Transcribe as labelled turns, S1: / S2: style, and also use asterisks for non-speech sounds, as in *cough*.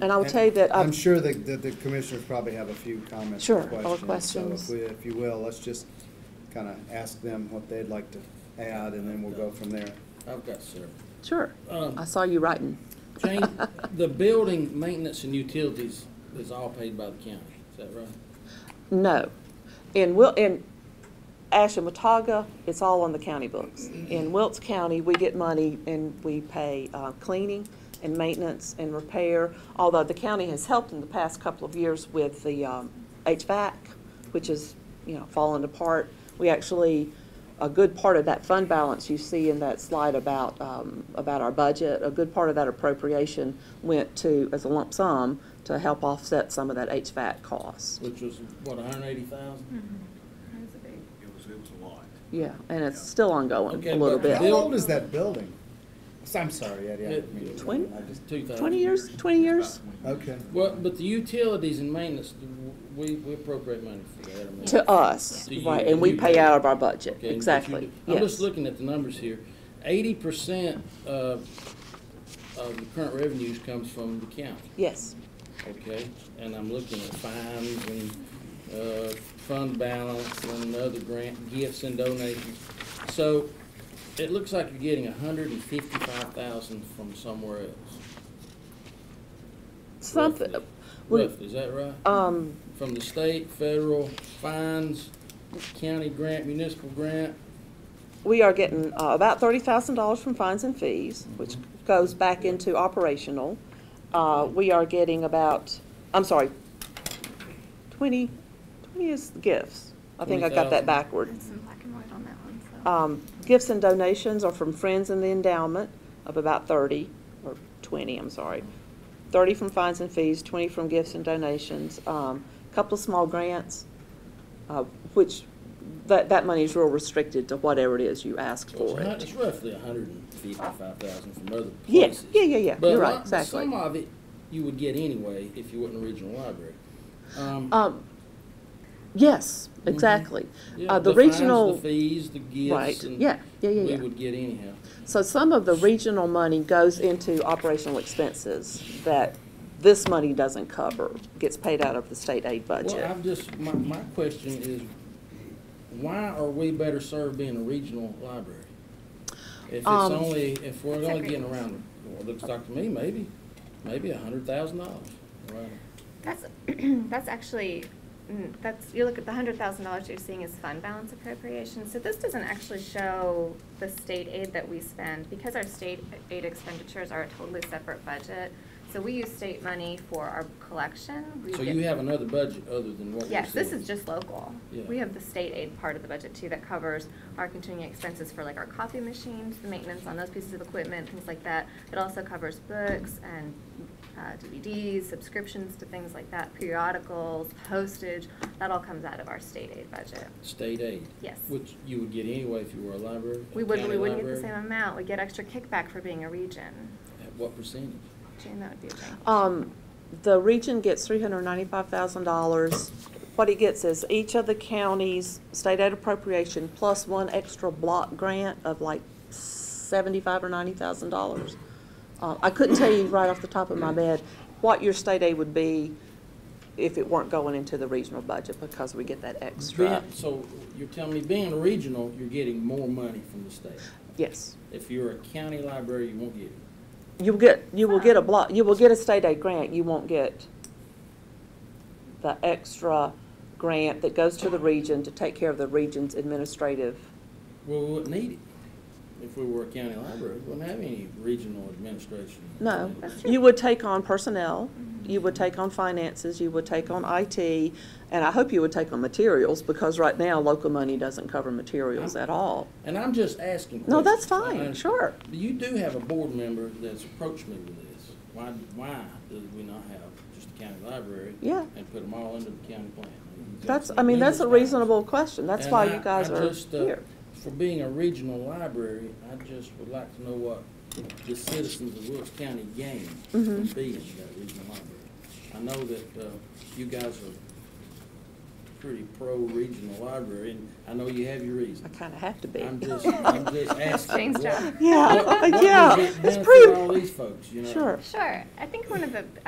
S1: And I will tell you that
S2: I'm
S1: I've
S2: sure that, that the commissioners probably have a few comments
S1: Sure,
S2: or
S1: or
S2: questions.
S1: questions.
S2: So if we, if you will, let's just kind of ask them what they'd like to add, and then we'll go from there.
S3: I've got several.
S1: Sure.
S3: Um,
S1: I saw you writing. *laughs*
S3: Jane, the building maintenance and utilities is all paid by the county, is that right?
S1: No. In Wil, in Ashamotaga, it's all on the county books. In Wilkes County, we get money and we pay uh, cleaning and maintenance and repair, although the county has helped in the past couple of years with the um, HVAC, which is, you know, falling apart. We actually, a good part of that fund balance you see in that slide about, um, about our budget, a good part of that appropriation went to, as a lump sum, to help offset some of that HVAC cost.
S3: Which was, what, hundred and eighty thousand?
S4: It was, it was a lot.
S1: Yeah, and it's still ongoing
S3: Okay,
S1: a little
S3: but
S1: bit.
S2: How
S3: Bill-
S2: old is that building? I'm sorry, Eddie, I didn't mean to.
S1: Twen-
S2: I just-
S3: Two thousand.
S1: Twenty years, twenty years?
S2: Okay.
S3: Well, but the utilities and maintenance, do we, we appropriate money for that. I mean-
S1: To us,
S3: Do you-
S1: right, and we pay out of our budget,
S3: Okay, but you
S1: exactly,
S3: do- I'm just
S1: yes.
S3: looking at the numbers here. Eighty percent of, of the current revenues comes from the county.
S1: Yes,
S3: Okay, and I'm looking at fines and, uh, fund balance and other grant gifts and donations. So it looks like you're getting hundred and fifty-five thousand from somewhere else.
S1: something,
S3: Roughly.
S1: we-
S3: Roughly, is that right?
S1: um,
S3: From the state, federal, fines, county grant, municipal grant,
S1: we are getting uh, about thirty thousand dollars from fines and fees, which
S3: Mm-hmm.
S1: goes back into operational. Uh, we are getting about, I'm sorry, twenty, twenty is gifts. I think I got that
S3: 20,000.
S1: backward.
S5: It's in black and white on that one, so.
S1: Um, Gifts and donations are from friends in the endowment of about thirty, or twenty, I'm sorry. Thirty from fines and fees, twenty from gifts and donations, um, couple of small grants, uh, which, that, that money is real restricted to whatever it is you ask
S3: Well,
S1: for
S3: It's not-
S1: it.
S3: it's roughly a hundred and fifty-five thousand from other
S1: Yeah,
S3: places.
S1: yeah, yeah, yeah,
S3: But
S1: you're
S3: a
S1: right,
S3: lot- but
S1: exactly.
S3: Some of it you would get anyway if you wasn't a regional library. Um,
S1: Um, Yes, exactly.
S3: Mm-hmm. yeah,
S1: Uh, The
S3: fines,
S1: regional,
S3: The fees, the
S1: right,
S3: gifts. and
S1: yeah, yeah, yeah,
S3: We
S1: yeah.
S3: would get anyhow.
S1: So some of the regional money goes into operational expenses that this money doesn't cover, gets paid out of the state aid
S3: Well,
S1: budget.
S3: I've just, my, my question is, why are we better served being a regional library? If it's
S1: Um,
S3: only, if we're
S5: That's a
S3: only
S5: great
S3: getting around, well, it looks like to me, maybe, maybe a hundred thousand dollars. Right.
S5: That's, *clears throat* that's actually, mm, that's, you look at the hundred thousand dollars you're seeing is fund balance appropriation. So this doesn't actually show the state aid that we spend, because our state aid expenditures are a totally separate budget. So we use state money for our collection. We
S3: So
S5: get-
S3: you have another budget other than what we're
S5: Yes, this
S3: seeing.
S5: is just local.
S3: Yeah.
S5: We have the state aid part of the budget too that covers our continuing expenses for like our coffee machines, the maintenance on those pieces of equipment, things like that. It also covers books and uh, DVDs, subscriptions to things like that, periodicals, postage, that all comes out of our state aid budget.
S3: State aid.
S5: Yes.
S3: Which you would get anyway if you were a library. a
S5: We wouldn't, we
S3: county
S5: wouldn't get the
S3: library.
S5: same amount, we get extra kickback for being a region.
S3: At what percentage?
S5: Jane, that would be a thing.
S1: Um, the region gets three hundred ninety-five thousand dollars. What it gets is each of the counties' state aid appropriation plus one extra block grant of like seventy-five or ninety thousand dollars. Uh, I couldn't tell you right off the top of my head what your state aid would be if it weren't going into the regional budget because we get that extra.
S3: Being- So you're telling me being regional, you're getting more money from the state.
S1: Yes.
S3: If you're a county library, you won't get it.
S1: You'll get, you will get a block, you will get a state aid grant, you won't get the extra grant that goes to the region to take care of the region's administrative.
S3: Well, we wouldn't need it. If we were a county library, we wouldn't have any regional administration.
S1: No,
S5: That's true.
S1: you would take on personnel, you would take on finances, you would take on IT, and I hope you would take on materials, because right now, local money doesn't cover materials at all.
S3: And I'm just asking.
S1: No, that's
S3: questions.
S1: fine,
S3: I-
S1: sure.
S3: You do have a board member that's approached me with this. Why, why do we not have just a county library?
S1: Yeah.
S3: And put them all under the county plan?
S1: That's, I mean, that's a
S3: Numerous times.
S1: reasonable question, that's
S3: And
S1: why
S3: I-
S1: you guys
S3: I
S1: are
S3: just, uh,
S1: here.
S3: For being a regional library, I just would like to know what the citizens of Wilkes County gain
S1: Mm-hmm.
S3: from being that regional library. I know that, uh, you guys are pretty pro-regional library, and I know you have your
S1: I
S3: reasons.
S1: kinda have to be.
S3: I'm just, I'm just
S1: *laughs*
S3: asking. *laughs*
S5: Jane's
S3: what-
S5: job.
S1: Yeah,
S3: what
S1: *laughs*
S3: does
S1: yeah,
S3: it
S1: it's
S3: benefit
S1: pretty,
S3: all these folks, you know?
S1: sure.
S5: Sure, I think one of the,